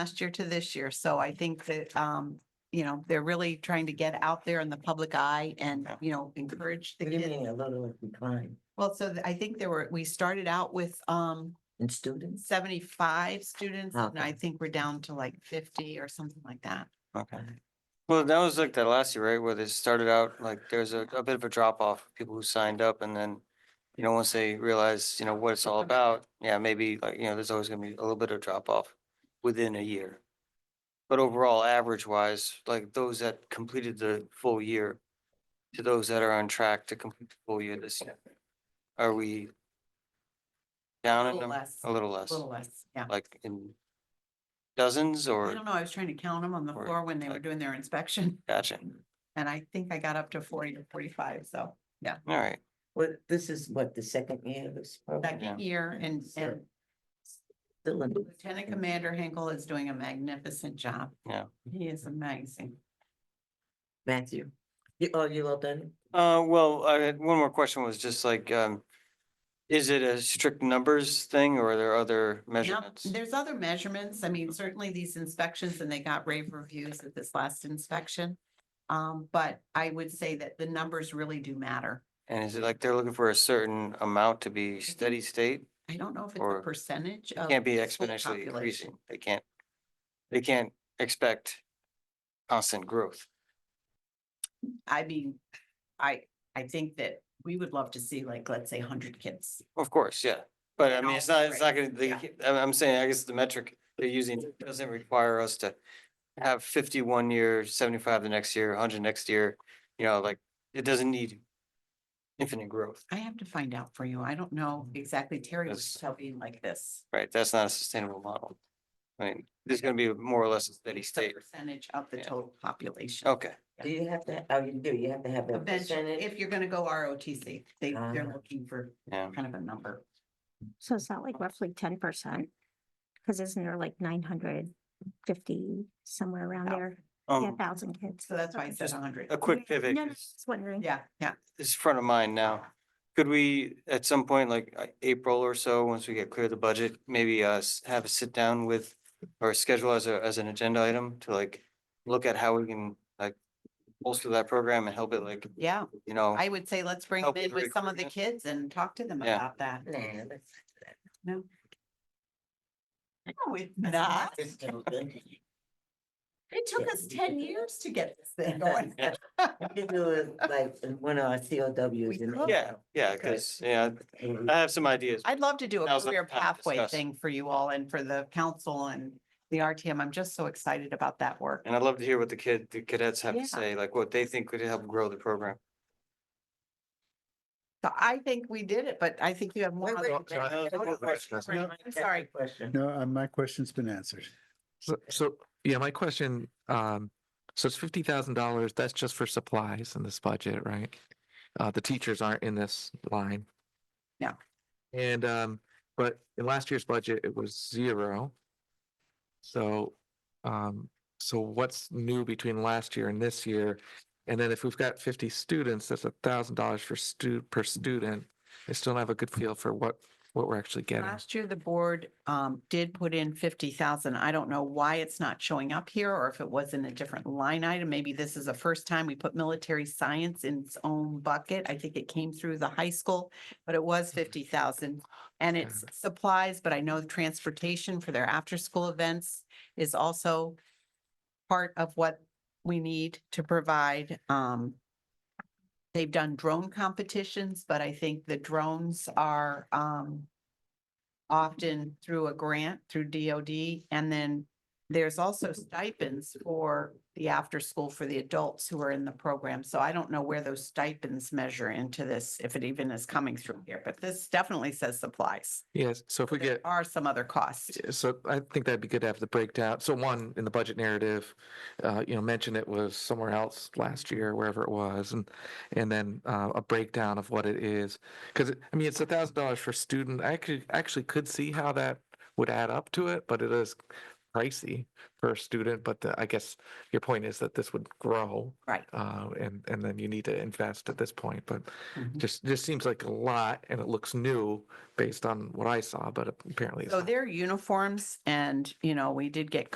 last year to this year. So I think that, um, you know, they're really trying to get out there in the public eye and, you know, encourage the What do you kids. mean a little decline Well, so th- I think there were, we started out with, um, in students? seventy-five students and I Okay. think we're down to like fifty or something like that. Okay. Well, that was like that last year, right, where they started out, like there's a, a bit of a drop off, people who signed up and then, you know, once they realize, you know, what it's all about, yeah, maybe like, you know, there's always gonna be a little bit of drop off within a year. But overall, average wise, like those that completed the full year to those that are on track to complete the full year this year, are we down Little in them? Oh, less. A little A less, little less, yeah. like in dozens I or, don't know, I was trying to count them on the or- floor when they were doing their inspection gotcha, and I think I got up to forty to forty-five, so. all right. Well, this is what, the second year of this program? Second year and, So- and Still in- Lieutenant Commander Hinkle is doing a magnificent job. Yeah. He is amazing. Matthew, you, oh, you all done? Uh, well, I had one more question was just like, um, is it a strict numbers thing or are there other Yep, measurements? there's other measurements. I mean, certainly these inspections and they got rave reviews at this last inspection. Um, but I would say that the numbers really do matter. And is it like they're looking for a certain amount to be Mm-hmm. think- steady state? I don't know if it's a Or- percentage It Oh, of. Can't be the school exponentially population. increasing. They can't, they can't expect constant growth. I mean, I, I think that we would love to see like, let's say hundred kids. Of course, yeah. But I And mean, it's all not, it's not gonna, grades, they, yeah. I'm, I'm saying, I guess the metric they're using doesn't require us to have fifty one year, seventy-five the next year, hundred next year, you know, like, it doesn't need infinite growth. I have to find out for you. I don't know exactly. Terry was Yes. telling like this. Right, that's not a sustainable model. I mean, there's gonna be more or less a steady the state. Percentage of the Yeah. Oh. total population. Okay, Do you have to, oh, you do, you have to have a Eventually, percentage? if you're gonna go ROTC, they, they're Ah. looking for yeah, kind of a number. So it's not like roughly ten percent? Cause isn't there like nine hundred fifty, somewhere around Yeah. there, a um, thousand kids? So that's why I said Just- hundred. a quick Yeah, pivot, no, no, 'cause Just wondering. Yeah, yeah. this is front of mind now. Could we, at some point, like uh, April or so, once we get clear of the budget, maybe uh s- have a sit down with or schedule as a, as an agenda item to like look at how we can like bolster that program and help it like, Yeah, you know, I would say let's bring them Help in with with some of the recruitment. kids and talk to them Yeah. about that. Nah, that's. No. No, it's that's not. just stupid. It took us ten years to get this thing going. Yeah. You can do it like in one of our We COWs. in could. yeah, yeah, Good. cause yeah, April. I have some ideas. I'd love to do a Now's not career the time to pathway discuss. thing for you all and for the council and the RTM. I'm just so excited about that work. And I'd love to hear what the kid, the cadets have Yeah. to say, like what they think could help grow the program. So I think we did it, but I think you have more. Wait, wait, other- wait, so I have wait, one wait, question. wait, No. wait, I'm sorry. Question. No, uh, my question's been answered. So, so, yeah, my question, um, so it's fifty thousand dollars, that's just for supplies in this budget, right? Uh, the teachers aren't in this line. No. And, um, but in last year's budget, it was zero. So, um, so what's new between last year and this year? And then if we've got fifty students, that's a thousand dollars for stu- per student. I still don't have a good feel for what, what we're actually getting. Last year, the board um did put in fifty thousand. I don't know why it's not showing up here or if it was in a different line item. Maybe this is the first time we put military science in its own bucket. I think it came through the high school, but it was fifty thousand. And it's supplies, but I know the transportation for their after-school events is also part of what we need to provide. Um, they've done drone competitions, but I think the drones are um often through a grant through DOD. And then there's also Mm-hmm. stipends for the after school for the adults who are in the program. So I don't know where those stipends measure into this, if it even is coming through here, but this definitely says supplies. Yes, so if we There get. Are some other costs. Yeah, So I think that'd be good to have the breakdown. So one, in the budget narrative, uh, you know, mention it was somewhere else last year, wherever it was, and, and then, uh, a breakdown of what it is. Cause it- I mean, it's a thousand dollars for student. I could, actually could see how that would add up to it, but it is pricey per student. But the- I guess your point is that this would grow. Right. Uh, and, and then you need to invest at this point, but Mhm. just, just seems like a lot and it looks new based on what I saw, but apparently it's So not. their uniforms and, you know, we did get